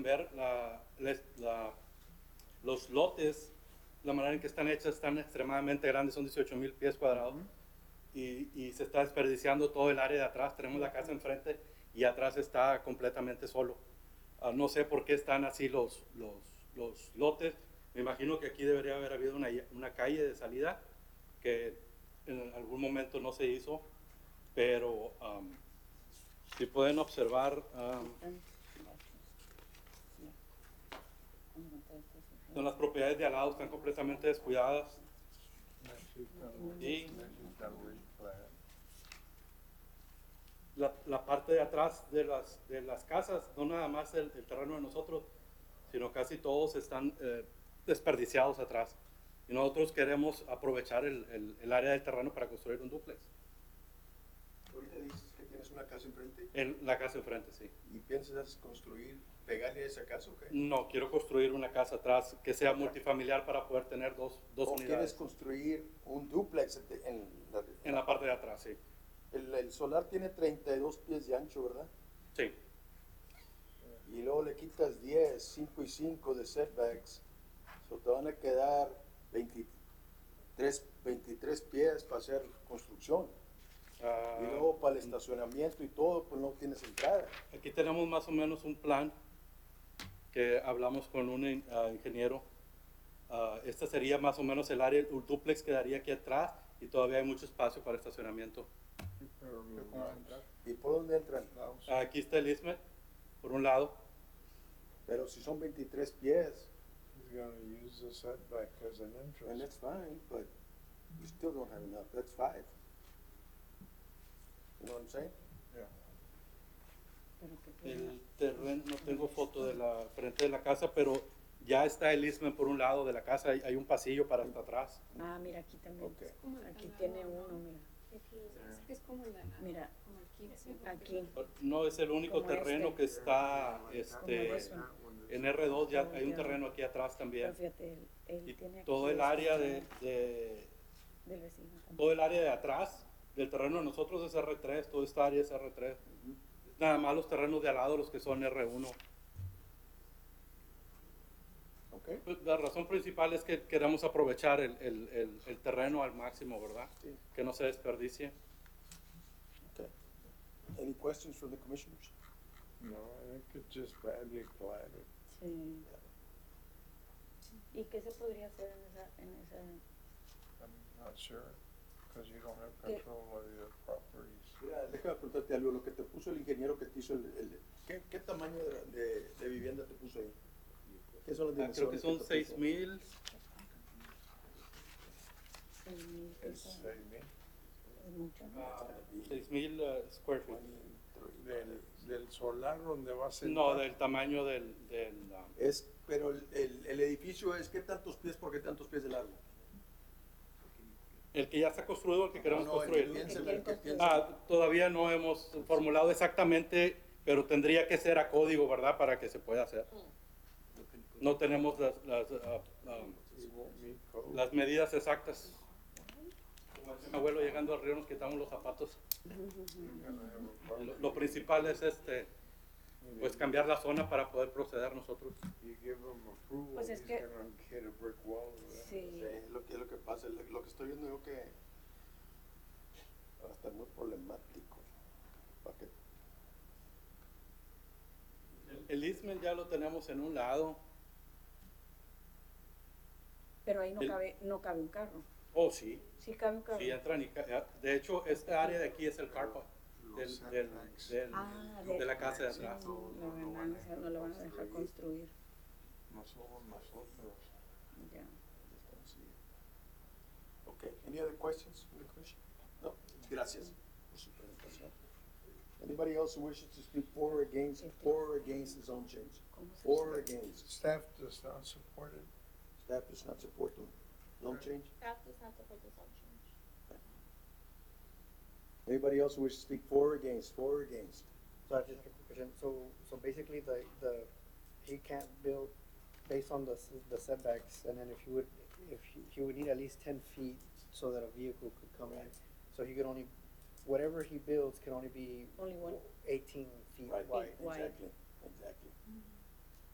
ver la- les- la- los lotes, la manera en que están hechas, están extremadamente grandes, son 18 mil pies cuadrados. y, y se está desperdiciando todo el área de atrás. Tenemos la casa enfrente y atrás está completamente solo. Ah, no sé por qué están así los, los, los lotes. Me imagino que aquí debería haber habido una, una calle de salida que en algún momento no se hizo, pero am, si pueden observar, am, son las propiedades de al lado están completamente descuidadas. Y la, la parte de atrás de las, de las casas, no nada más el, el terreno de nosotros, sino casi todos están eh, desperdiciados atrás. Y nosotros queremos aprovechar el, el- el área del terreno para construir un dúplex. Ahorita dices que tienes una casa enfrente En la casa enfrente, sí. y piensas construir, pegarle a esa casa o qué? No, quiero construir una casa atrás que sea multifamiliar para poder tener dos, dos ¿O quieres unidades. construir un duplex de- en la- En la parte de atrás, sí. el, el solar tiene 32 pies de ancho, ¿verdad? Sí, Y luego le quitas 10, 5 y 5 de setbacks. So, te van a quedar 23, 23 pies para hacer construcción. Ah, Y luego para el estacionamiento y todo, pues no tienes entrada. Aquí tenemos más o menos un plan que hablamos con un in- ah, ingeniero. Ah, esta sería más o menos el área, el duplex quedaría aquí atrás y todavía hay mucho espacio para estacionamiento. ¿Y por dónde entran? Uh, Aquí está el ISME, por un lado. Pero si son 23 pies, He's gonna use the setback as an then entrance. that's fine, but you still don't have enough. That's five. You know what I'm saying? El terreno, no tengo foto de la frente de la casa, pero ya está el ISME por un lado de la casa. Hay, hay un pasillo para hasta atrás. Ah, mira, aquí también. Ok. Aquí tiene uno, mira. Es como el de la- Mira, como el 15, ¿no? aquí. No es el único Como terreno este. que está Como este, este. en R2. Ya hay un Ya. terreno aquí atrás también. Pero fíjate, él, él Y tiene todo aquí el esta área de, zona de- del vecino. también. todo el área de atrás del terreno de nosotros es R3, toda esta área es R3. Nada más los terrenos de al lado los que son R1. Okay. Pues, La razón principal es que queremos aprovechar el, el- el- el terreno al máximo, ¿verdad? Sí. Que no se desperdicie. Okay. Any questions from the commissioners? No, I think it's just badly platted. Sí. ¿Y qué se podría hacer en esa, en esa? I'm not sure, cause you don't have Okay. control of your properties. Mira, déjame preguntarte algo, lo que te puso el ingeniero que te hizo el, el- ¿qué, qué tamaño de, de- de vivienda te puso ahí? ¿Qué son las Ah, dimensiones? creo que son te puso? 6000, el mil It's, piso? I mean, Es mucho. ¿no? ah, 6000 eh, square feet. del, del solar donde va a ser. No, del tamaño del, del, ah, Es, pero el, el- el edificio es, ¿qué tantos pies por qué tantos pies de largo? el que ya está construido, el que queremos Ah, No, no, el que construir. piensa- el quieren que construir. piensa- Ah, todavía no hemos formulado exactamente, pero tendría que ser a código, ¿verdad? Para que se pueda hacer. No tenemos las, las, ah, ah, It won't meet code. las medidas exactas. Como decía mi abuelo llegando al río nos quitamos los zapatos. You're gonna have a Lo, problem. lo principal es este, pues cambiar la zona para poder proceder nosotros. You give him approval, Pues he's es gonna que- hit a brick wall. ¿verdad? Sí. Sí, lo que, lo que pasa, lo, lo que estoy viendo yo que va a estar muy problemático. Para que El Ismen ya lo tenemos en un lado. Pero ahí no el- cabe, no cabe un carro. Oh, sí, Sí cabe un carro. sí entran y ca- De hecho, esta área de aquí es el carpa del, Los del- setbacks. del- Ah, de la de, casa de atrás. no, no, no, van a dejar- no lo van a dejar construir. No somos nosotros. Ya. Ok, any other questions from the commission? No, gracias por su presentación. Anybody else who wishes to speak for or against, for or against the zone change? ¿Cómo se- For or against, Staff does not support it. staff does not support the zone change? That does not support the zone change. Anybody else who wishes to speak for or against, for or against? So I have just a quick question. So, so basically the, the, he can't build based on the, s- the setbacks and then if he would, if he, he would need at least ten feet so that a vehicle could come in. So he could only, whatever he builds can only be Only one. eighteen feet Right, wide. exactly, exactly.